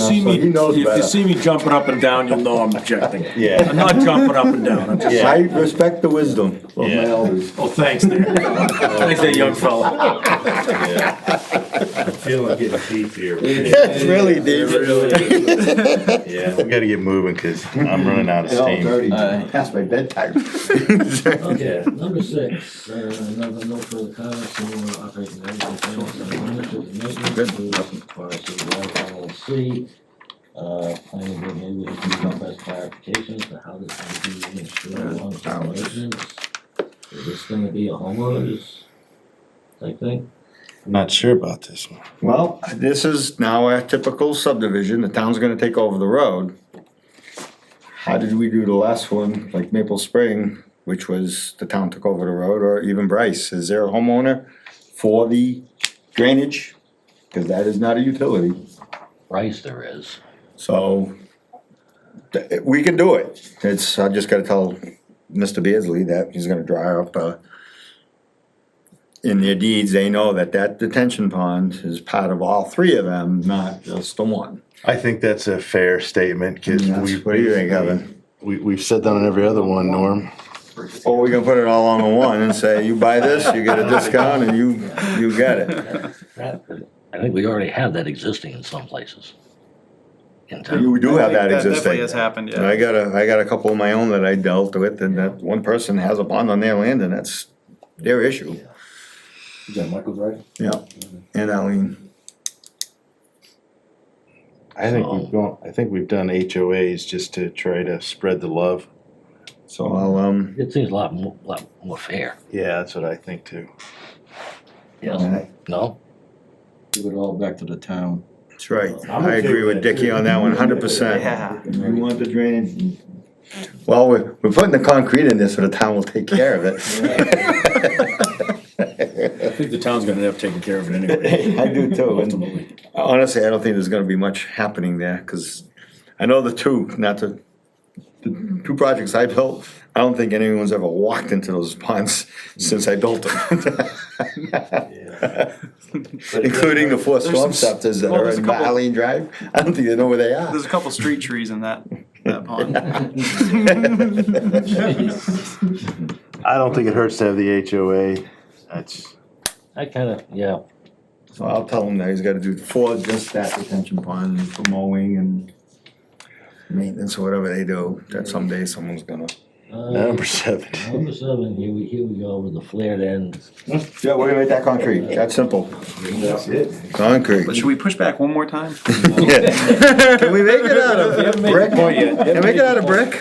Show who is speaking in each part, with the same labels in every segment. Speaker 1: see
Speaker 2: so
Speaker 1: me,
Speaker 2: he knows
Speaker 1: if you
Speaker 2: better.
Speaker 1: see me jumping up and down, you'll know I'm objecting.
Speaker 2: Yeah.
Speaker 1: I'm not jumping up and down, I'm just,
Speaker 2: I respect the wisdom of my elders.
Speaker 1: oh, thanks there. Thanks there, young fella.
Speaker 3: I feel like getting deep here.
Speaker 2: It's really deep.
Speaker 3: Yeah, we gotta get moving, cause I'm running out of
Speaker 2: It's all
Speaker 3: steam.
Speaker 2: dirty, past my bedtime.
Speaker 4: Okay, number six, uh, another no further comments, anyone operating everything else, I wanted to make this move for City Water LLC. Uh, planning board maybe we can come as clarifications for how this is being insured long-term maintenance. Is this gonna be a homeowner's type thing?
Speaker 3: Not sure about this one.
Speaker 2: Well, this is now a typical subdivision, the town's gonna take over the road. How did we do the last one, like Maple Spring, which was the town took over the road, or even Bryce, is there a homeowner for the drainage? Cause that is not a utility,
Speaker 4: Price there is.
Speaker 2: so th- we can do it. It's, I just gotta tell Mr. Beardsley that he's gonna dry up, uh, in their deeds, they know that that detention pond is part of all three of them, not just the one.
Speaker 3: I think that's a fair statement, cause
Speaker 2: Yes.
Speaker 3: we.
Speaker 2: What do you think, Evan?
Speaker 3: We, we've said that on every other one, Norm.
Speaker 2: Or Oh, we can put it all on the one and say, you buy this, you get a discount, and you, you get it.
Speaker 4: I think we already have that existing in some places. In
Speaker 2: You do have that eh?
Speaker 5: Definitely has
Speaker 2: existing.
Speaker 5: happened,
Speaker 2: And I
Speaker 5: yeah.
Speaker 2: got a, I got a couple of my own that I dealt with, and that one person has a bond on their land, and that's their issue.
Speaker 6: Michael's right?
Speaker 2: Yeah, and Eileen,
Speaker 3: I think we've gone, I think we've done HOAs just to try to spread the love.
Speaker 2: so I'll, um,
Speaker 4: It seems a lot more, lot more fair,
Speaker 3: Yeah, that's what I think too.
Speaker 4: yes, no?
Speaker 6: Give it all back to the town.
Speaker 2: that's right.
Speaker 3: I'm
Speaker 2: I
Speaker 3: okay
Speaker 2: agree
Speaker 3: with
Speaker 2: with
Speaker 3: that,
Speaker 2: Dicky on that one, hundred percent.
Speaker 5: Yeah.
Speaker 2: You want the drainage? Well, we're, we're putting the concrete in this, so the town will take care of it.
Speaker 1: I think the town's gonna have taken care of it anyway.
Speaker 2: I do too, and-
Speaker 1: Ultimately.
Speaker 2: Honestly, I don't think there's gonna be much happening there, cause I know the two, not the, the two projects I built, I don't think anyone's ever walked into those ponds since I built them. Including the four storm
Speaker 5: uh, There's some-
Speaker 2: scepters that
Speaker 5: well,
Speaker 2: are
Speaker 5: there's a
Speaker 2: in
Speaker 5: couple-
Speaker 2: Baleen Drive, I don't think they know where they are.
Speaker 5: There's a couple street trees in that, that pond.
Speaker 3: I don't think it hurts to have the HOA. That's,
Speaker 4: I kinda, yeah,
Speaker 2: So I'll tell him that he's gotta do four, just that detention pond and for mowing and maintenance or whatever they do, that someday someone's gonna.
Speaker 4: Uh,
Speaker 3: number seven.
Speaker 4: Number seven, here we, here we go with the flared end.
Speaker 2: Yeah, we're gonna make that concrete, that's simple,
Speaker 3: That's it.
Speaker 2: concrete.
Speaker 5: But should we push back one more time?
Speaker 2: Can we make it out of brick? Can we make it out of brick?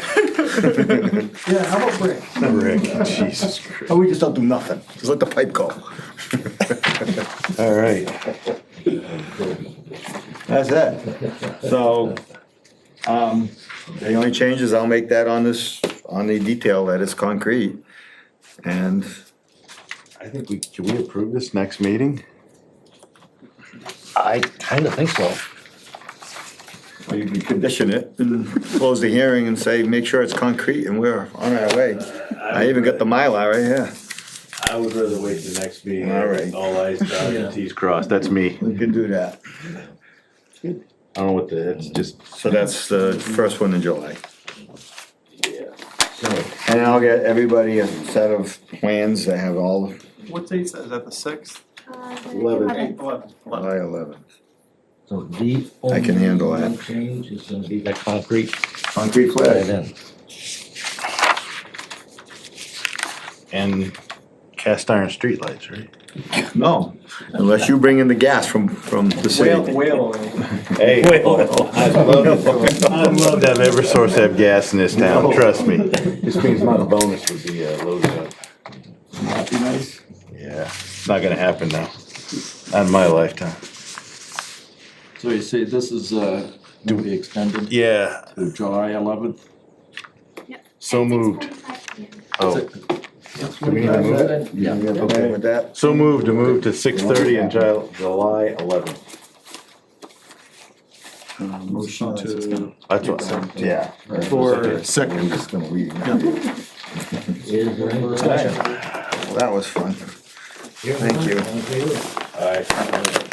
Speaker 6: Yeah, how about Rick?
Speaker 3: Rick, Jesus Christ.
Speaker 2: Or we just don't do nothing, just let the pipe go.
Speaker 3: All right.
Speaker 2: That's it. So, um, the only change is I'll make that on this, on the detail that it's concrete. And
Speaker 3: I think we, can we approve this next meeting?
Speaker 4: I kinda think so.
Speaker 2: you can condition it and close the hearing and say, make sure it's concrete and we're on our way. I even got the Mylar right here.
Speaker 3: I would rather wait the next meeting.
Speaker 2: All right.
Speaker 3: All eyes dotted and T's crossed. That's me.
Speaker 2: We can do that.
Speaker 3: I don't know what the, it's just.
Speaker 2: So that's the first one in July.
Speaker 4: So,
Speaker 2: And I'll get everybody a set of plans that have all
Speaker 5: What date is that? Is that the sixth?
Speaker 3: Eleven.
Speaker 5: Eleven.
Speaker 2: July eleventh.
Speaker 4: so the
Speaker 2: I can handle
Speaker 4: only
Speaker 2: that.
Speaker 4: Change is gonna be that concrete
Speaker 2: Concrete
Speaker 4: flared
Speaker 2: flares.
Speaker 4: end.
Speaker 3: And cast iron streetlights, right?
Speaker 2: No, unless you bring in the gas from, from the city.
Speaker 3: Hey,
Speaker 1: Well,
Speaker 3: I'd love to- I'd love to have Eversource have gas in this town, trust me. This means my bonus would be uh, loaded up. Yeah, it's not gonna happen now, not in my lifetime.
Speaker 6: So you say this is, uh, to be extended
Speaker 3: Yeah,
Speaker 6: to July eleventh?
Speaker 3: so moved. Oh,
Speaker 4: Do we need to move it? Yeah.
Speaker 2: Okay with that?
Speaker 3: so moved to move to six thirty in Ju- July eleventh.
Speaker 5: Motion to.
Speaker 3: That's what, yeah.
Speaker 5: For
Speaker 2: second. I'm just gonna leave now. Well,
Speaker 4: Is there any discussion?
Speaker 2: That was fun. Thank you.
Speaker 4: All in favor?
Speaker 3: All right.